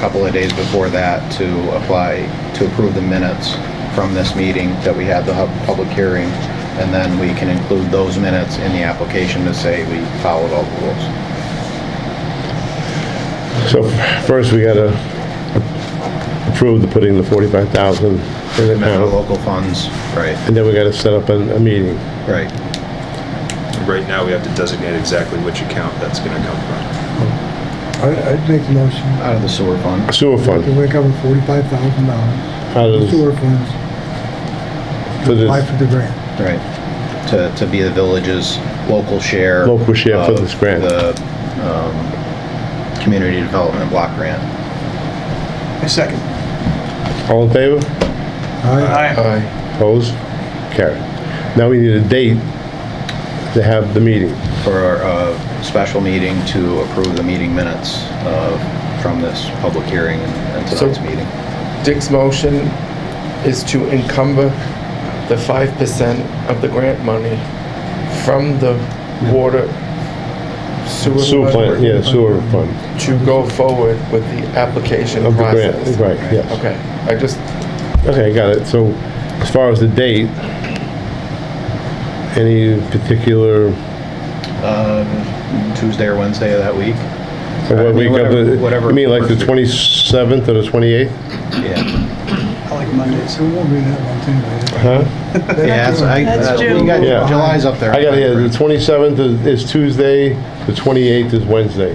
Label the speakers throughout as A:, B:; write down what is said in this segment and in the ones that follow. A: couple of days before that to apply, to approve the minutes from this meeting that we had the hub- public hearing, and then we can include those minutes in the application to say we followed all the rules.
B: So first, we gotta approve the putting the 45,000 in the
A: Amount of
B: account,
A: local funds, right,
B: and then we gotta set up a, a meeting.
A: right.
C: Right now, we have to designate exactly which account that's gonna come from.
D: I- I'd make the motion
A: Out of the sewer fund,
B: Sewer
D: that
B: fund,
D: we cover forty-five thousand dollars,
B: how does,
D: sewer funds,
B: for
D: apply
B: this,
D: for the grant.
A: right, to, to be the village's local share.
B: Local share for
A: of
B: this grant.
A: The, um, community development block grant.
E: A second.
B: all in favor?
D: Aye.
B: Aye. Opposed? Carried. Now we need a date to have the meeting.
A: for a special meeting to approve the meeting minutes uh, from this public hearing and tonight's
F: So-
A: meeting.
F: Dick's motion is to encumber the five percent of the grant money from the water sewer.
B: Sewer
F: fund
B: fund, yeah, sewer fund
F: To go forward with the application
B: of the grant,
F: process.
B: right, yes.
F: Okay, I just,
B: Okay, got it. So as far as the date, any particular,
A: Um, Tuesday or Wednesday of that week?
B: what week of
A: whatever-
B: the,
A: whatever
B: you mean like the
A: works.
B: 27th or the 28th?
A: Yeah.
E: I like Mondays.
D: So it won't be that much anyway.
B: Huh?
A: Yeah, it's- I-
G: That's
A: uh,
G: June.
A: You got,
B: Yeah.
A: July's up there.
B: I got here, the 27th is- is Tuesday, the 28th is Wednesday.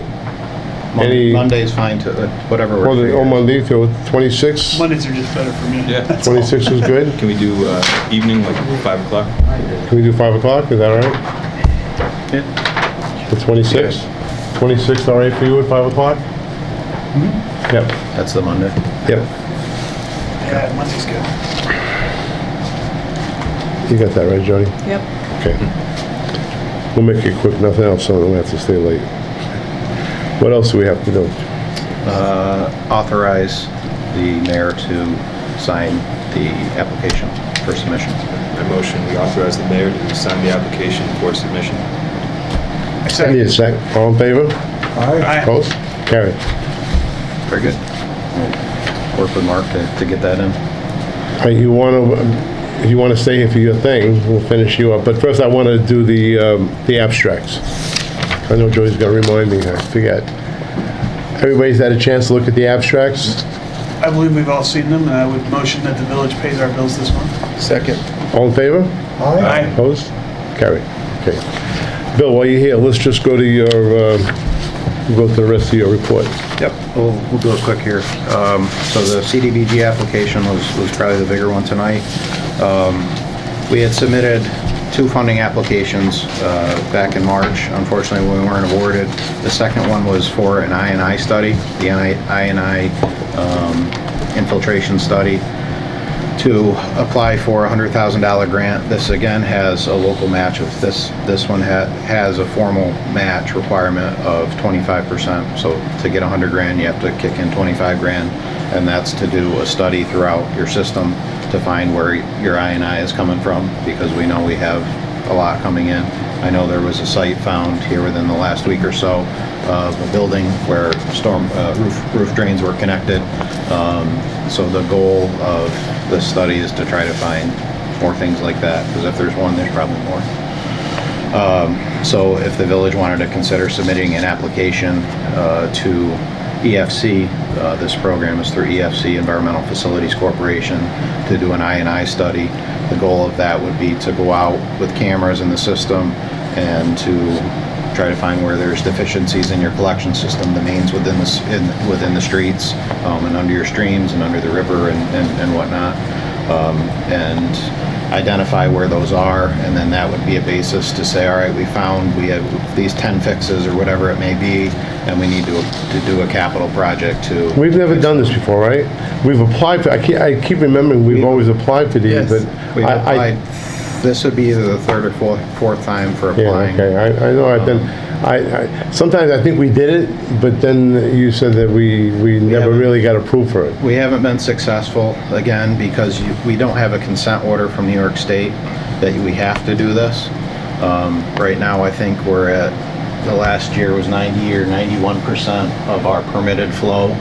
A: Mon-
B: any-
A: Monday's fine to, uh, whatever. works
B: Or
A: for
B: the,
A: you
B: or
A: guys.
B: Monday, so 26,
E: Mondays are just better for me.
C: Yeah.
B: 26 is good?
C: Can we do uh, evening, like 5 o'clock?
B: Can we do 5 o'clock, is that all right? The 26th? 26th, all right for you at 5 o'clock? Yep,
A: That's the Monday.
B: yep,
E: Yeah, Monday's good.
B: you got that right, Jody?
G: Yep.
B: Okay. We'll make it quick, nothing else, so we don't have to stay late. What else do we have to do?
A: Uh, Authorize the mayor to sign the application for submission.
C: My motion, we authorize the mayor to sign the application for submission.
E: A
B: Need a
E: second.
B: sec, all in favor?
D: Aye.
E: Aye.
B: Opposed? Carried.
A: Very good. We'll Work with Mark to to get that in.
B: All right, you want to, if you want to stay here for your thing, we'll finish you up. But first, I want to do the, um, the abstracts. I know Joey's going to remind me, I forget. Everybody's had a chance to look at the abstracts?
E: I believe we've all seen them, and I would motion that the village pays our bills this month.
F: second,
B: All in favor?
D: Aye.
B: Opposed? Carried. Okay. Bill, while you're here, let's just go to your, um, go to the rest of your report.
A: Yep, we'll, we'll do it quick here. Um, So the CDBG application was, was probably the bigger one tonight. Um, We had submitted two funding applications uh, back in March. Unfortunately, we weren't awarded. The second one was for an INI study, the INI um, infiltration study to apply for a hundred thousand dollar grant. This again has a local match of this, this one ha- has a formal match requirement of twenty-five percent. So to get a hundred grand, you have to kick in twenty-five grand, and that's to do a study throughout your system to find where your INI is coming from, because we know we have a lot coming in. I know there was a site found here within the last week or so of a building where storm, uh, roof, roof drains were connected. Um, So the goal of this study is to try to find more things like that, because if there's one, there's probably more. So if the village wanted to consider submitting an application uh, to EFC, uh, this program is through EFC, Environmental Facilities Corporation, to do an INI study. The goal of that would be to go out with cameras in the system and to try to find where there's deficiencies in your collection system, the mains within the, s- in- within the streets um, and under your streams and under the river and- and and whatnot um, and identify where those are, and then that would be a basis to say, all right, we found, we have these 10 fixes or whatever it may be, and we need to, to do a capital project to.
B: We've never done this before, right? We've applied for, I keep, I keep remembering we've always applied for these,
F: Yes.
B: but
A: We've
B: I, I
A: applied, this would be either the third or fourth, fourth time for
B: Yeah,
A: applying.
B: okay, I, I know, I've been, I, I, sometimes I think we did it, but then you said that we, we never
A: haven't.
B: really got approved for it.
A: We haven't been successful, again, because you- we don't have a consent order from New York State that we have to do this. Um, Right now, I think we're at, the last year was 90 or 91% of our permitted flow